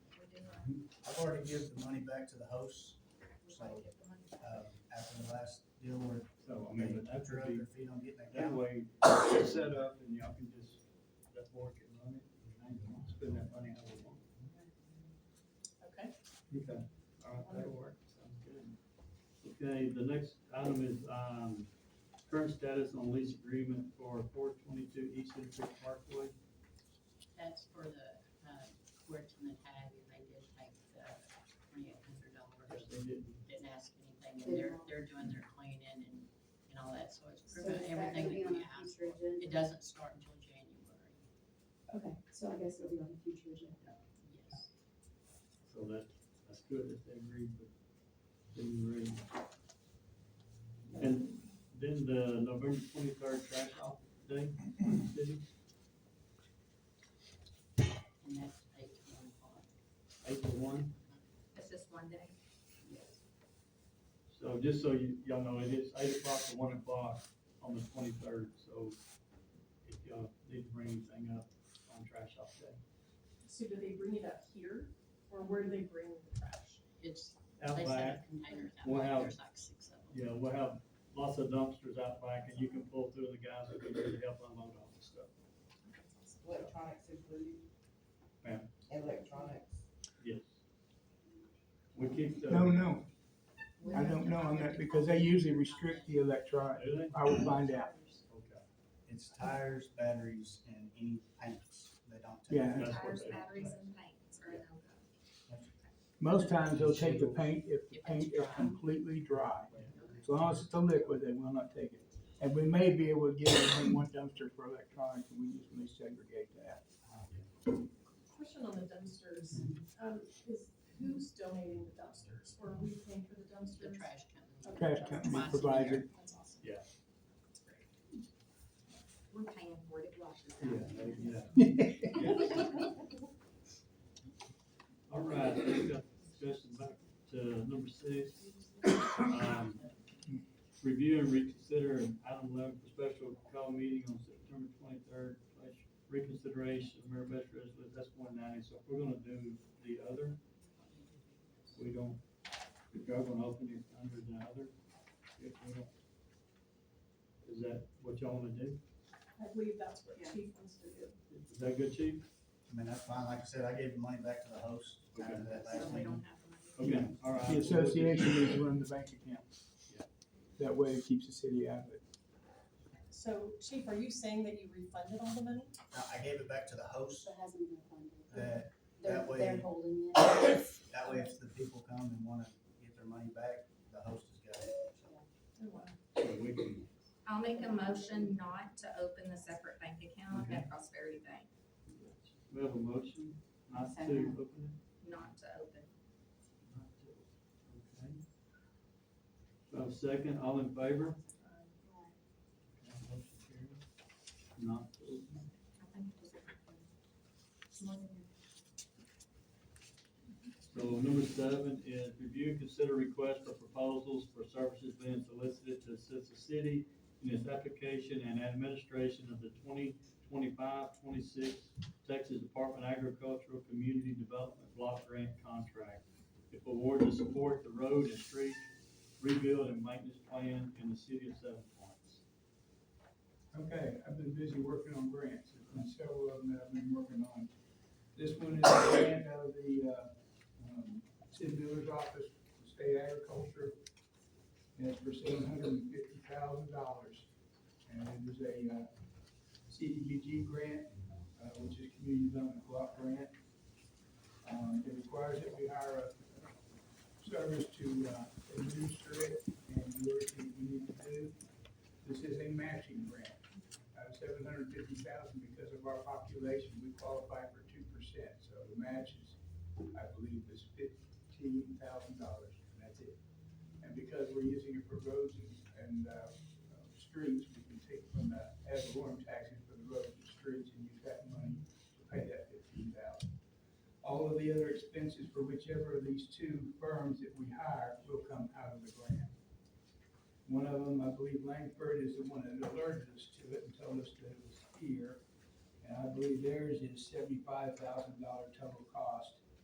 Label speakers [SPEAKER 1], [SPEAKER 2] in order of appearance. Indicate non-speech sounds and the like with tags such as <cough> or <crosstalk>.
[SPEAKER 1] hard to give the money back to the hosts, so, um, after the last deal where
[SPEAKER 2] So, I
[SPEAKER 1] they
[SPEAKER 2] mean, but that's
[SPEAKER 1] they're
[SPEAKER 2] would
[SPEAKER 1] up
[SPEAKER 2] be,
[SPEAKER 1] their feet on getting that
[SPEAKER 2] that
[SPEAKER 1] down.
[SPEAKER 2] way, it's set up and y'all can just, that board can run it, and they can spend that money how they want.
[SPEAKER 3] Okay.
[SPEAKER 2] Okay, all right, that'll work, sounds good. Okay, the next item is, um, current status on lease agreement for four twenty-two East Central Parkway.
[SPEAKER 3] That's for the, uh, courts and the tag, and they did take the twenty-eight hundred
[SPEAKER 2] Yes,
[SPEAKER 3] dollars.
[SPEAKER 2] they did.
[SPEAKER 3] Didn't ask anything, and they're, they're doing their cleaning and, and all that, so it's
[SPEAKER 4] So
[SPEAKER 3] pretty much
[SPEAKER 4] that
[SPEAKER 3] everything
[SPEAKER 4] could be
[SPEAKER 3] that
[SPEAKER 4] on a
[SPEAKER 3] we have.
[SPEAKER 4] future agenda.
[SPEAKER 3] It doesn't start until January,
[SPEAKER 4] Okay, so I guess it'll be on a future agenda.
[SPEAKER 3] yes.
[SPEAKER 2] So that, that's good if they agree, but didn't agree. And then the November twenty-third trash off day, city,
[SPEAKER 3] And that's eight to one o'clock,
[SPEAKER 2] eight to one.
[SPEAKER 5] It's just one day.
[SPEAKER 3] yes.
[SPEAKER 2] So just so you, y'all know, it is eight o'clock to one o'clock on the twenty-third, so if y'all need to bring anything up on trash off day.
[SPEAKER 6] So do they bring it up here, or where do they bring the trash?
[SPEAKER 3] It's,
[SPEAKER 2] Out
[SPEAKER 3] they
[SPEAKER 2] back,
[SPEAKER 3] set up containers out
[SPEAKER 2] We'll
[SPEAKER 3] back,
[SPEAKER 2] have-
[SPEAKER 3] there's like six of them.
[SPEAKER 2] yeah, we'll have lots of dumpsters out back and you can pull through and the guys will be there to help unload all the stuff.
[SPEAKER 7] Electronics included?
[SPEAKER 2] Ma'am?
[SPEAKER 7] Electronics.
[SPEAKER 2] Yes. We uh, keep the.
[SPEAKER 8] No, no, I don't know on that because they usually restrict the electronic.
[SPEAKER 2] Do they?
[SPEAKER 8] I will find out.
[SPEAKER 2] Okay,
[SPEAKER 1] It's tires, batteries, and any paints, they don't take.
[SPEAKER 8] Yeah.
[SPEAKER 2] That's what
[SPEAKER 5] Tires,
[SPEAKER 2] they-
[SPEAKER 5] batteries, and paints are a no-go.
[SPEAKER 8] Most times they'll take the paint if the paint is completely dry. As long as it's a liquid, they will not take it. And we may be able to get it in one dumpster for electronics and we just may segregate that.
[SPEAKER 6] Question on the dumpsters,
[SPEAKER 4] Mm-hmm.
[SPEAKER 6] um, is who's donating the dumpsters, or are we paying for the
[SPEAKER 3] The
[SPEAKER 6] dumpsters?
[SPEAKER 3] trash company.
[SPEAKER 8] Trash company
[SPEAKER 3] Twice a
[SPEAKER 8] provides
[SPEAKER 3] year.
[SPEAKER 8] it.
[SPEAKER 6] That's awesome.
[SPEAKER 5] We're paying for it, it washes
[SPEAKER 2] Yeah,
[SPEAKER 5] out.
[SPEAKER 2] they- <laughs> yeah. All right, we've got discussion back to number six. Um, Review and reconsider an item eleven for special call meeting on September twenty-third, reconsideration of Mayor Best Resolution, that's one ninety, so if we're gonna do the other, we don't, if y'all gonna open it under the other, if we don't. Is that what y'all wanna do?
[SPEAKER 6] I believe that's what
[SPEAKER 4] Yeah.
[SPEAKER 6] Chief wants to do.
[SPEAKER 2] Is that good, chief?
[SPEAKER 1] I mean, that's fine, like I said, I gave the money back to the host after that
[SPEAKER 5] <laughs> So
[SPEAKER 1] last
[SPEAKER 5] we
[SPEAKER 1] meeting.
[SPEAKER 5] don't have money.
[SPEAKER 2] Okay, all right.
[SPEAKER 8] The association needs to run the bank account. That way it keeps the city out of it.
[SPEAKER 6] So Chief, are you saying that you refunded all the money?
[SPEAKER 1] Now, I gave it back to the host,
[SPEAKER 4] So it hasn't been funded.
[SPEAKER 1] that,
[SPEAKER 4] They're,
[SPEAKER 1] That way-
[SPEAKER 4] they're holding it.
[SPEAKER 1] that way if the people come and wanna get their money back, the host has got it, so.
[SPEAKER 6] Oh, wow.
[SPEAKER 2] So we can-
[SPEAKER 5] I'll make a motion not to open the separate bank account at Prosperity Bank,
[SPEAKER 2] We have a motion not to
[SPEAKER 4] Second.
[SPEAKER 5] not to
[SPEAKER 2] open
[SPEAKER 5] open.
[SPEAKER 2] it. Not to. Okay. So second, all in favor?
[SPEAKER 5] Uh,
[SPEAKER 2] Okay, motion carries. Not to open it.
[SPEAKER 5] I think it was- It's more than-
[SPEAKER 2] So number seven is review and consider requests for proposals for services being solicited to assist the city in its application and administration of the 2025-26 Texas Department of Agricultural Community Development Block Grant Contract. If awarded to support the road and street rebuild and maintenance plan in the city of Seven Points.
[SPEAKER 8] Okay, I've been busy working on grants, there's been several of them that I've been working on. This one is a grant out of the, uh, um, city builder's office, for state agriculture. And it's for seven hundred and fifty thousand dollars. And it is a, uh, CDBG grant, uh, which is Community Development Block Grant. Um, it requires that we hire a service to, uh, administer it and do everything we need to do. This is a matching grant, uh, seven hundred fifty thousand, because of our population, we qualify for two percent, so the match is, I believe, is fifteen thousand dollars, and that's it. And because we're using it for roads and, and, uh, uh, streets, we can take from the ad valorem taxes for the roads and streets and use that money to pay that fifteen thousand. All of the other expenses for whichever of these two firms that we hire will come out of the grant. One of them, I believe Langford is the one that alerted us to it and told us that it was here. And I believe theirs is seventy-five thousand dollar total cost.